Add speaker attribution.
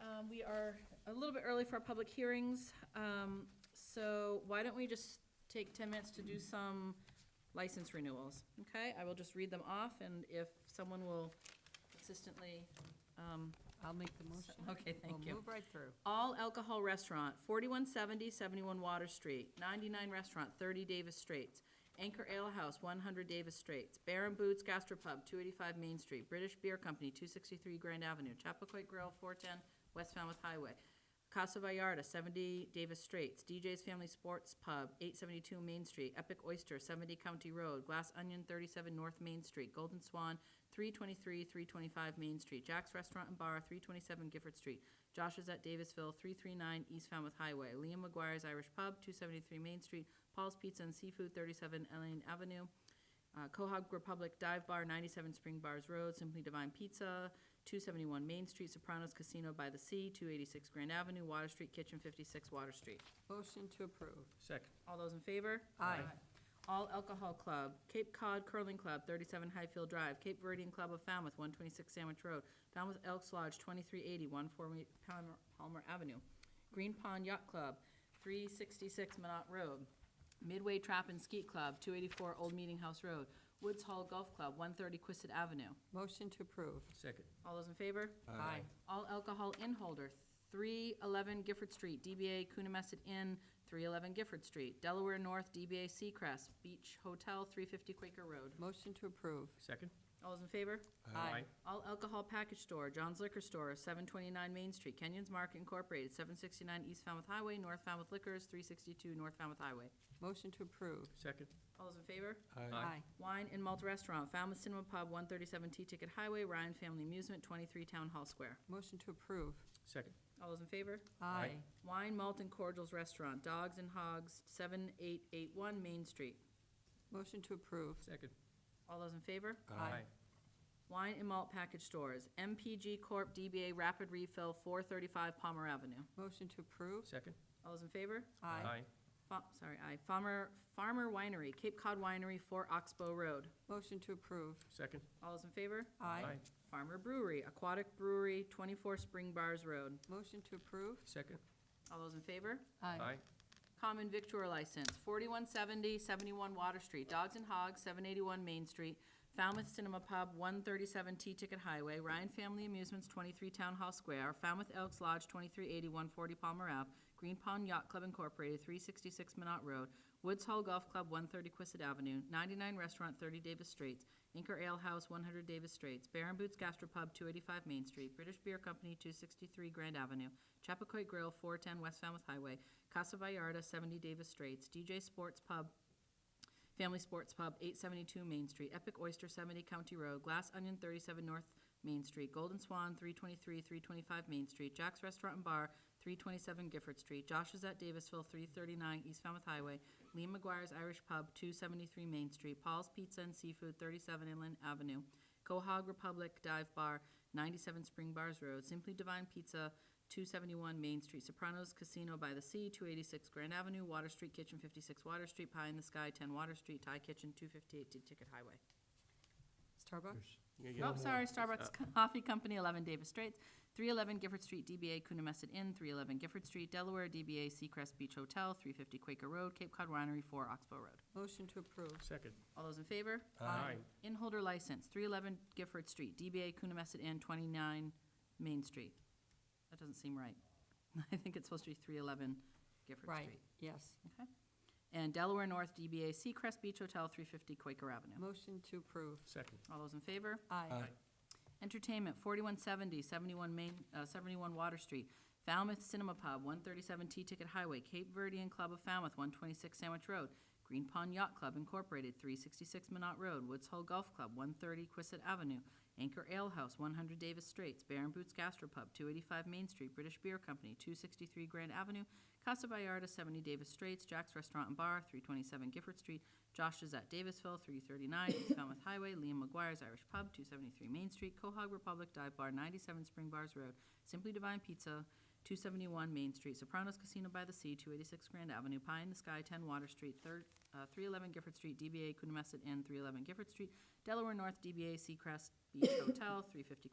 Speaker 1: um, we are a little bit early for our public hearings, um, so why don't we just take ten minutes to do some license renewals, okay? I will just read them off, and if someone will consistently, um,
Speaker 2: I'll make the motion.
Speaker 1: okay, thank you.
Speaker 2: We'll move right through.
Speaker 1: All Alcohol Restaurant, 4170 71 Water Street, ninety-nine Restaurant, thirty Davis Straits, Anchor Ale House, one hundred Davis Straits, Baron Boots Gastropub, two eighty-five Main Street, British Beer Company, two sixty-three Grand Avenue, Chappaquay Grill, four ten West Falmouth Highway, Casa Vallarta, seventy Davis Straits, DJ's Family Sports Pub, eight seventy-two Main Street, Epic Oyster, seventy County Road, Glass Onion, thirty-seven North Main Street, Golden Swan, three twenty-three, three twenty-five Main Street, Jack's Restaurant and Bar, three twenty-seven Gifford Street, Josh's at Davisville, 339 East Falmouth Highway. Liam McGuire's Irish Pub, 273 Main Street. Paul's Pizza and Seafood, 37 Elaine Avenue. Uh, Cohog Republic Dive Bar, 97 Spring Bars Road. Simply Divine Pizza, 271 Main Street. Sopranos Casino by the Sea, 286 Grand Avenue. Water Street Kitchen, 56 Water Street.
Speaker 2: Motion to approve.
Speaker 3: Second.
Speaker 1: All those in favor?
Speaker 2: Aye.
Speaker 1: All Alcohol Club, Cape Cod Curling Club, 37 Highfield Drive, Cape Verdean Club of Falmouth, 126 Sandwich Road, Falmouth Elks Lodge, 2380, 140 Palmer- Palmer Avenue, Green Pond Yacht Club, 366 Minot Road, Midway Trap and Skeet Club, 284 Old Meeting House Road, Woods Hall Golf Club, 130 Quistit Avenue.
Speaker 2: Motion to approve.
Speaker 3: Second.
Speaker 1: All those in favor?
Speaker 2: Aye.
Speaker 1: All alcohol in holder, 311 Gifford Street, DBA Coonamessett Inn, 311 Gifford Street, Delaware North, DBA Seacrest, Beach Hotel, 350 Quaker Road.
Speaker 2: Motion to approve.
Speaker 3: Second.
Speaker 1: All those in favor?
Speaker 2: Aye.
Speaker 1: All alcohol package store, John's Liquor Store, 729 Main Street, Kenyon's Market Incorporated, 769 East Falmouth Highway, North Falmouth Liquors, 362 North Falmouth Highway.
Speaker 2: Motion to approve.
Speaker 3: Second.
Speaker 1: All those in favor?
Speaker 3: Aye.
Speaker 1: Wine and Malt Restaurant, Falmouth Cinema Pub, 137 T-Ticket Highway, Ryan Family Amusement, 23 Town Hall Square.
Speaker 2: Motion to approve.
Speaker 3: Second.
Speaker 1: All those in favor?
Speaker 2: Aye.
Speaker 1: Wine, Malt, and Cordials Restaurant, Dogs and Hogs, 7881 Main Street.
Speaker 2: Motion to approve.
Speaker 3: Second.
Speaker 1: All those in favor?
Speaker 2: Aye.
Speaker 1: Wine and Malt Package Stores, MPG Corp. DBA Rapid Refill, 435 Palmer Avenue.
Speaker 2: Motion to approve.
Speaker 3: Second.
Speaker 1: All those in favor? Fa- Sorry, aye. Farmer, Farmer Winery, Cape Cod Winery, 4 Oxbow Road.
Speaker 2: Motion to approve.
Speaker 3: Second.
Speaker 1: All those in favor?
Speaker 2: Aye.
Speaker 1: Farmer Brewery, Aquatic Brewery, 24 Spring Bars Road.
Speaker 2: Motion to approve.
Speaker 3: Second.
Speaker 1: All those in favor? Common victuar license, 4170, 71 Water Street, Dogs and Hogs, 781 Main Street, Falmouth Cinema Pub, 137 T-Ticket Highway, Ryan Family Amusements, 23 Town Hall Square, Falmouth Elks Lodge, 2380, 140 Palmer Ave, Green Pond Yacht Club Incorporated, 366 Minot Road, Woods Hall Golf Club, 130 Quistit Avenue, 99 Restaurant, 30 Davis Straits, Inker Ale House, 100 Davis Straits, Baron Boots Gastropub, 285 Main Street, British Beer Company, 263 Grand Avenue, Chappaquay Grill, 410 West Falmouth Highway, Casa Vallarta, 70 Davis Straits, DJ Sports Pub, Family Sports Pub, 872 Main Street, Epic Oyster, 70 County Road, Glass Onion, 37 North Main Street, Golden Swan, 323, 325 Main Street, Jack's Restaurant and Bar, 327 Gifford Street, Josh's at Davisville, 339 East Falmouth Highway, Lee McGuire's Irish Pub, 273 Main Street, Paul's Pizza and Seafood, 37 Inland Avenue, Cohog Republic Dive Bar, 97 Spring Bars Road, Simply Divine Pizza, 271 Main Street, Sopranos Casino by the Sea, 286 Grand Avenue, Water Street Kitchen, 56 Water Street, Pie in the Sky, 10 Water Street, Thai Kitchen, 258 Ticket Highway.
Speaker 2: Starbucks.
Speaker 1: Oh, sorry,
Speaker 3: Uh,
Speaker 1: Starbucks Coffee Company, 11 Davis Straits, 311 Gifford Street, DBA Coonamessett Inn, 311 Gifford Street, Delaware, DBA Seacrest Beach Hotel, 350 Quaker Road, Cape Cod Winery, 4 Oxbow Road.
Speaker 2: Motion to approve.
Speaker 3: Second.
Speaker 1: All those in favor?
Speaker 3: Uh,
Speaker 1: Inholder license, 311 Gifford Street, DBA Coonamessett Inn, 29 Main Street. That doesn't seem right. I think it's supposed to be 311 Gifford
Speaker 2: Right,
Speaker 1: Street.
Speaker 2: yes.
Speaker 1: Okay. And Delaware North, DBA Seacrest Beach Hotel, 350 Quaker Avenue.
Speaker 2: Motion to approve.
Speaker 3: Second.
Speaker 1: All those in favor?
Speaker 2: Aye.
Speaker 1: Entertainment, 4170, 71 Main, uh, 71 Water Street, Falmouth Cinema Pub, 137 T-Ticket Highway, Cape Verdean Club of Falmouth, 126 Sandwich Road, Green Pond Yacht Club Incorporated, 366 Minot Road, Woods Hole Golf Club, 130 Quistit Avenue, Anchor Ale House, 100 Davis Straits, Baron Boots Gastropub, 285 Main Street, British Beer Company, 263 Grand Avenue, Casa Vallarta, 70 Davis Straits, Jack's Restaurant and Bar, 327 Gifford Street, Josh's at Davisville, 339 East Falmouth Highway, Liam McGuire's Irish Pub, 273 Main Street, Cohog Republic Dive Bar, 97 Spring Bars Road, Simply Divine Pizza, 271 Main Street, Sopranos Casino by the Sea, 286 Grand Avenue, Pie in the Sky, 10 Water Street, third- uh, 311 Gifford Street, DBA Coonamessett Inn, 311 Gifford Street, Delaware North, DBA Seacrest Beach Hotel, 350